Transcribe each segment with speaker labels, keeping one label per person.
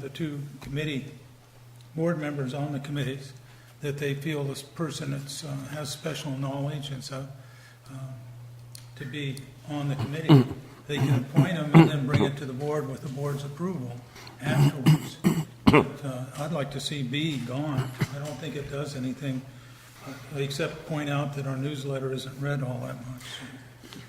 Speaker 1: the two committee, board members on the committees, that they feel this person that's, uh, has special knowledge and so, um, to be on the committee. They can appoint them and then bring it to the board with the board's approval afterwards. But, uh, I'd like to see B gone. I don't think it does anything, uh, except point out that our newsletter isn't read all that much.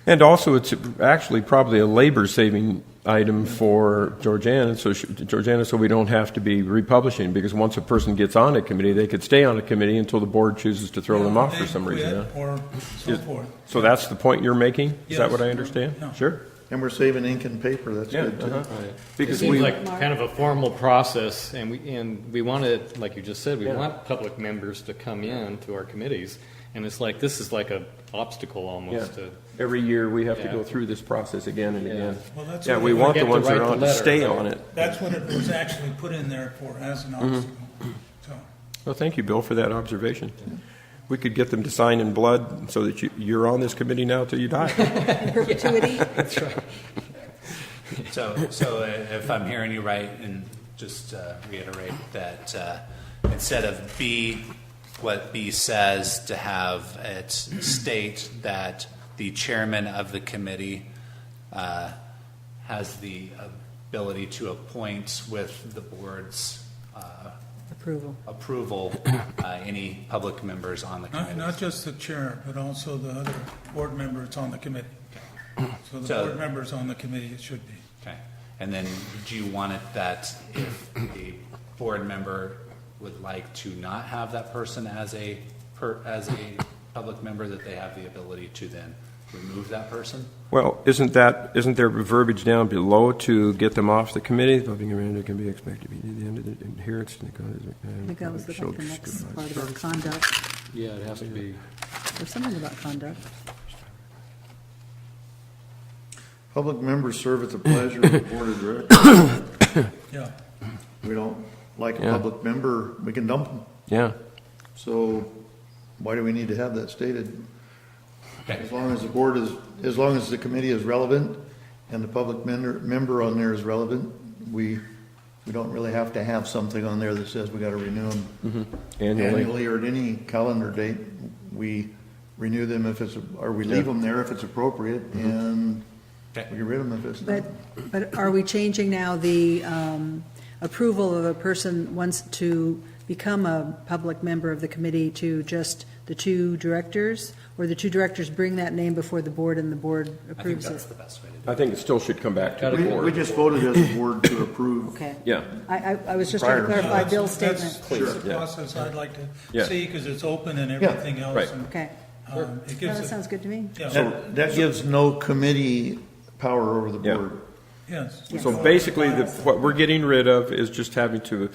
Speaker 2: And also, it's actually probably a labor-saving item for Georgiana, so she, Georgiana, so we don't have to be republishing, because once a person gets on a committee, they could stay on a committee until the board chooses to throw them off for some reason.
Speaker 1: Quit
Speaker 2: huh?
Speaker 1: Or so forth.
Speaker 2: So that's the point you're making? Is that what
Speaker 1: Yes.
Speaker 2: I understand?
Speaker 1: Yeah.
Speaker 2: Sure.
Speaker 3: And we're saving ink and paper, that's
Speaker 2: Yeah.
Speaker 3: good too.
Speaker 2: uh-huh. Because
Speaker 4: It seems
Speaker 2: we,
Speaker 4: like kind of a formal process, and we, and we want to, like you just said, we
Speaker 2: Yeah.
Speaker 4: want public members to come in to our committees, and it's like, this is like a obstacle
Speaker 2: yeah,
Speaker 4: almost to.
Speaker 2: every year, we have to
Speaker 4: Yeah.
Speaker 2: go through this process again and
Speaker 4: Yeah.
Speaker 2: again.
Speaker 1: Well, that's
Speaker 2: Yeah,
Speaker 1: what
Speaker 2: we
Speaker 1: we
Speaker 2: want the
Speaker 4: get to
Speaker 2: ones that
Speaker 4: write
Speaker 2: are
Speaker 4: the
Speaker 2: on to
Speaker 4: letter,
Speaker 2: stay
Speaker 4: right?
Speaker 2: on it.
Speaker 1: That's what it was actually put in there for, as an obstacle. So,
Speaker 2: Well, thank you, Bill, for that observation. We could get them to sign in blood so that you, you're on this committee now till you die.
Speaker 5: perpetuity.
Speaker 6: So, so uh, if I'm hearing you right, and just uh, reiterate that uh, instead of B, what B says, to have it state that the chairman of the committee uh, has the ability to appoint with the board's uh,
Speaker 5: Approval.
Speaker 6: approval, uh, any public members on the
Speaker 1: not,
Speaker 6: committee.
Speaker 1: not just the chair, but also the other board member that's on the committee. So the
Speaker 6: So-
Speaker 1: board members on the committee, it should be.
Speaker 6: Okay. And then do you want it that if a board member would like to not have that person as a, per, as a public member, that they have the ability to then remove that person?
Speaker 2: Well, isn't that, isn't there verbiage down below to get them off the committee? Loving Miranda can be expected to be the end of the adherence to the
Speaker 5: I think that was like the next part about conduct,
Speaker 4: Yeah, it has to be.
Speaker 5: or something about conduct.
Speaker 3: Public members serve at the pleasure of the board of directors.
Speaker 1: Yeah.
Speaker 3: We don't like a
Speaker 2: Yeah.
Speaker 3: public member, we can dump them.
Speaker 2: Yeah,
Speaker 3: So why do we need to have that stated?
Speaker 6: Okay.
Speaker 3: As long as the board is, as long as the committee is relevant and the public member, member on there is relevant, we, we don't really have to have something on there that says we gotta renew them
Speaker 2: annually.
Speaker 3: annually or at any calendar date. We renew them if it's, or we leave them there if it's appropriate and we
Speaker 6: Okay.
Speaker 3: get rid of them if it's not.
Speaker 5: But, but are we changing now the um, approval of a person wants to become a public member of the committee to just the two directors? Or the two directors bring that name before the board and the board
Speaker 6: I think
Speaker 5: approves
Speaker 6: that's
Speaker 5: it?
Speaker 6: the best way to do
Speaker 2: I think it still should come back to the
Speaker 3: We, we
Speaker 2: board.
Speaker 3: just voted as a board to approve.
Speaker 5: Okay.
Speaker 2: Yeah.
Speaker 5: I, I, I was just trying to
Speaker 3: Prior.
Speaker 5: clarify Bill's
Speaker 1: That's-
Speaker 5: statement.
Speaker 1: That's the
Speaker 2: Yeah.
Speaker 1: process I'd like to
Speaker 2: Yeah.
Speaker 1: see, because it's open and
Speaker 3: Yeah.
Speaker 1: everything else.
Speaker 2: Right.
Speaker 1: and,
Speaker 5: Okay.
Speaker 1: um, It
Speaker 5: Well,
Speaker 1: gives
Speaker 5: that
Speaker 1: it,
Speaker 5: sounds good to me.
Speaker 1: yeah,
Speaker 3: So that gives no committee power over the
Speaker 2: Yeah.
Speaker 3: board.
Speaker 1: yes.
Speaker 2: So basically, the, what we're getting rid of is just having to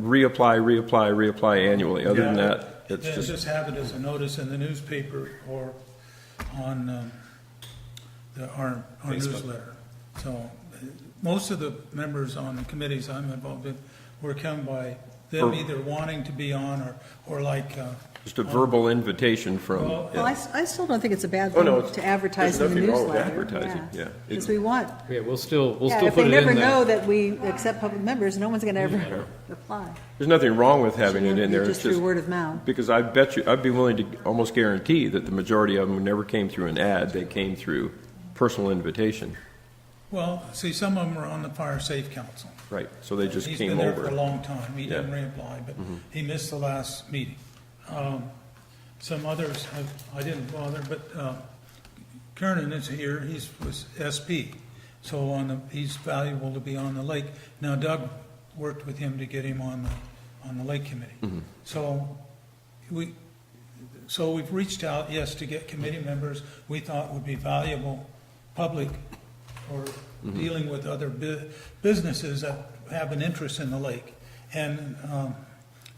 Speaker 2: reapply, reapply, reapply annually. Other than that, it's
Speaker 1: Then
Speaker 2: just,
Speaker 1: just have it as a notice in the newspaper or on um, the, our, our newsletter. So, uh, most of the members on the committees I'm involved in were come by them
Speaker 2: Or-
Speaker 1: either wanting to be on or, or like, uh,
Speaker 2: just a verbal invitation from.
Speaker 1: Well,
Speaker 2: yeah.
Speaker 5: Well, I, s- I still don't think it's a bad
Speaker 2: Oh, no,
Speaker 5: thing
Speaker 2: it's-
Speaker 5: to advertise in the
Speaker 2: there's nothing wrong
Speaker 5: newsletter.
Speaker 2: with advertising, yeah.
Speaker 5: Because we want
Speaker 4: Yeah, we'll still, we'll
Speaker 5: Yeah,
Speaker 4: still
Speaker 5: if
Speaker 4: put
Speaker 5: they
Speaker 4: it
Speaker 5: never
Speaker 4: in
Speaker 5: know
Speaker 4: there.
Speaker 5: that we accept public members, no one's going to ever apply.
Speaker 2: There's nothing wrong with having it in there.
Speaker 5: Just
Speaker 2: It's
Speaker 5: through
Speaker 2: just,
Speaker 5: word of mouth.
Speaker 2: because I bet you, I'd be willing to almost guarantee that the majority of them never came through an ad. They came through personal invitation.
Speaker 1: well, see, some of them are on the fire safe council.
Speaker 2: Right. So they just
Speaker 1: He's
Speaker 2: came
Speaker 1: been there for a
Speaker 2: over.
Speaker 1: long time. He didn't
Speaker 2: Yeah. Mm-hmm.
Speaker 1: reapply, but he missed the last meeting. Um, Some others, have- I didn't bother, but uh, Kernan is here, he's, was SP, so on the, he's valuable to be on the lake. Now Doug worked with him to get him on the, on the lake
Speaker 2: Mm-hmm.
Speaker 1: committee. So we, so we've reached out, yes, to get committee members we thought would be valuable, public, or
Speaker 2: Mm-hmm.
Speaker 1: dealing with other bu- businesses that have an interest in the lake. And um,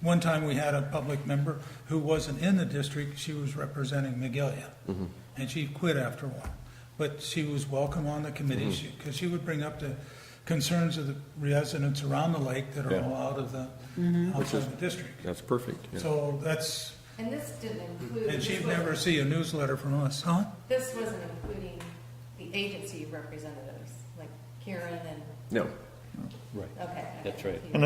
Speaker 1: one time, we had a public member who wasn't in the district, she was representing Magalia,
Speaker 2: Mm-hmm.
Speaker 1: and she quit after a while. But she was welcome on the
Speaker 2: Mm-hmm.
Speaker 1: committee, because she would bring up the concerns of the residents around the lake that are
Speaker 2: Yeah.
Speaker 1: all out of the, outside of the district.
Speaker 2: That's perfect. yeah.
Speaker 1: So that's,
Speaker 7: And this didn't include.
Speaker 1: and
Speaker 7: this
Speaker 1: she'd
Speaker 7: wasn't-
Speaker 1: never see a newsletter from us, huh?
Speaker 7: This wasn't including the agency representatives, like Karen and
Speaker 2: No.
Speaker 7: Right.
Speaker 8: Okay.
Speaker 7: That's right.